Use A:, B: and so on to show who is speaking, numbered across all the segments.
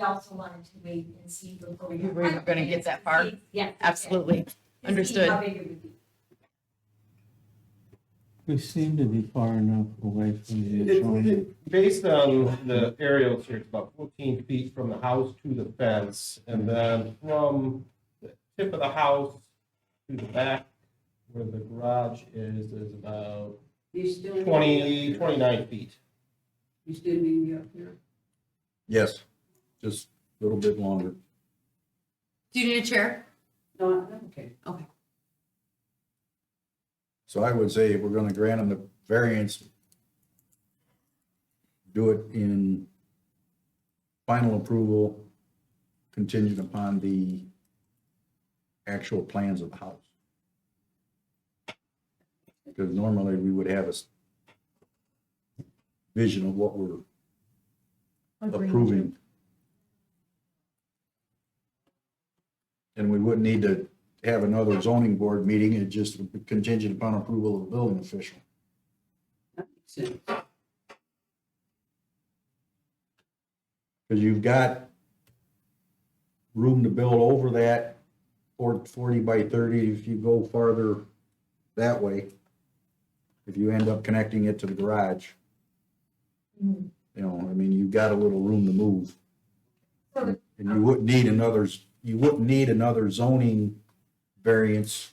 A: we also wanted to wait and see before we.
B: We weren't gonna get that far.
A: Yeah.
B: Absolutely.
A: To see
B: Understood.
A: how big it would be.
C: We seem to be far enough away from the
D: It-
C: adjoining.
D: it- Based on the aerial here, it's about fourteen feet from the house to the fence, and then from the tip of the house to the back where the garage is, is about
E: You still. need me up
D: 20 29
E: here?
D: feet.
E: You still need me up here?
F: Yes, just a little bit longer.
G: Do you need a chair?
E: No, I'm okay.
F: So I would say if we're gonna grant them the variance, do it in final approval contingent upon the actual plans of the house. Because normally we would have a s- vision of what we're approving. And we wouldn't need to have another zoning board meeting, it just would be contingent upon approval of the building official.
E: That makes sense.
F: Because you've got room to build over that, or forty by thirty, if you go farther that way, if you end up connecting it to the garage.
A: Mhm.
F: You know, I mean, you've got a little room to move.
A: So
F: And you wouldn't need another, s- you wouldn't need another zoning variance.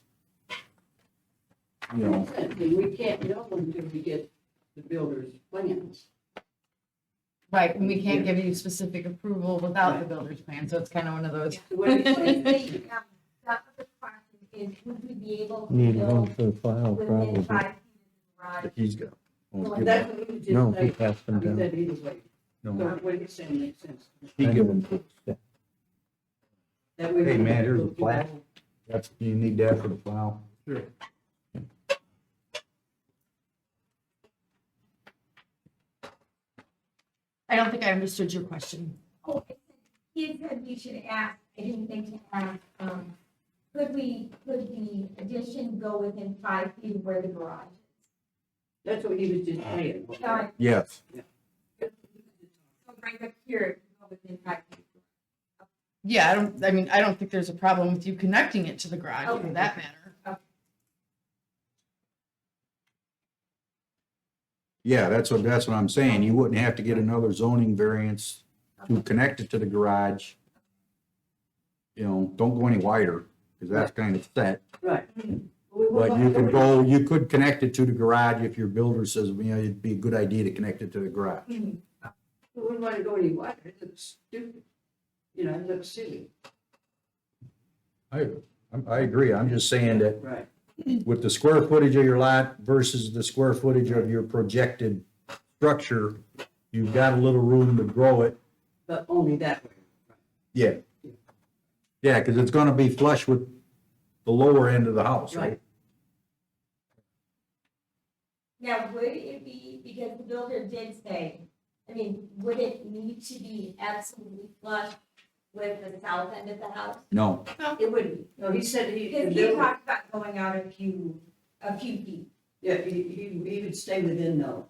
F: You know,
E: And we can't know until we get the builder's plans.
B: Right, and we can't give you specific approval without the builder's plan, so it's kind of one of those.
E: So what do you
A: What is
E: think?
A: the, um, that other part is would we be able to
C: Need room
A: build
C: for the file,
A: within
C: probably.
A: five feet of the
F: that he's got. well, give him-
E: That's what you just
C: No, he
E: said.
C: passed them
E: You
C: down.
E: said either way. So
F: no,
E: what you're saying makes sense.
F: He give him,
E: That way we
F: Hey,
E: can
F: man, here's
E: go
F: a
E: through the
F: plat.
E: whole-
F: that's, you need that for the file.
D: Sure.
G: I don't think I understood your question.
A: garage? He said we should ask, I didn't think to ask, um, could we, could the addition go within five feet of where the garage?
E: That's what he was just saying.
A: is? So I-
F: Yes,
A: so right up here, it could go within five feet.
B: Yeah, I don't, I mean, I don't think there's a problem with you connecting it to the garage for
A: Okay.
B: that matter.
F: yeah, that's what, that's what I'm saying. You wouldn't have to get another zoning variance to connect it to the garage. You know, don't go any wider, because that's kind of set.
E: Right.
A: Mm-hmm.
F: But you could go, you could connect it to the garage if your builder says, you know, it'd be a good idea to connect it to the garage.
A: Hmm.
E: We wouldn't want to go any wider. It looks stupid. You know, it looks silly.
F: I, I'm- I agree. I'm just saying that
E: Right.
F: with the square footage of your lot versus the square footage of your projected structure, you've got a little room to grow it.
E: But only that way.
F: Yeah. Yeah, because it's gonna be flush with the lower end of the house, right?
E: Right.
A: Now, would it be, because the builder did say, I mean, would it need to be absolutely flush with the south end of the house?
F: No,
A: It wouldn't,
E: No, he said he.
A: because
E: the
A: he
E: builder-
A: talked about going out a few, a few feet.
E: Yeah, he, he, he would stay within the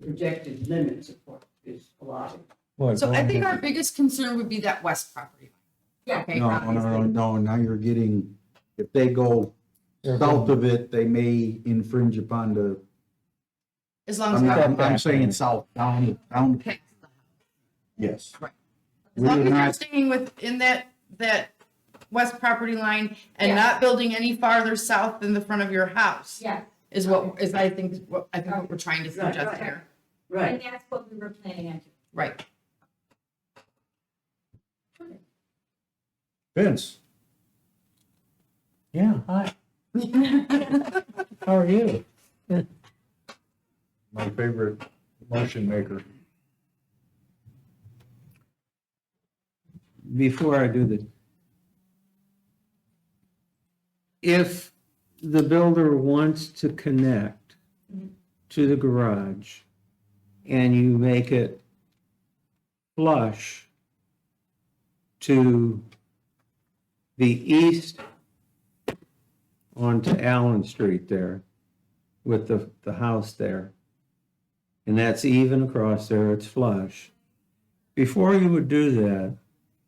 E: projected limits of what is allotted.
C: Boy,
G: So I
C: going
G: think
C: to-
G: our biggest concern would be that west property.
A: Yeah.
G: Okay,
F: no, no, no,
G: obviously.
F: no, now you're getting, if they go south of it, they may infringe upon the,
B: As long as,
F: I'm,
B: we-
F: I'm, I'm saying south, down, down,
G: okay,
F: yes.
G: Right. as
F: We're
B: long as you're
F: not,
B: staying within that, that west property line and
A: Yeah.
B: not building any farther south than the front of your house
A: Yeah,
B: is what, is I think, what, I think what we're trying to
E: Right,
B: suggest
E: right.
B: here.
E: Right.
A: and that's what we were planning on. doing.
B: Right.
F: Vince,
C: Yeah, hi, how are you?
F: my favorite motion maker.
C: Before I do this. If the builder wants to connect to the garage and you make it flush to the east onto Allen Street there with the, the house there. And that's even across there, it's flush. Before you would do that,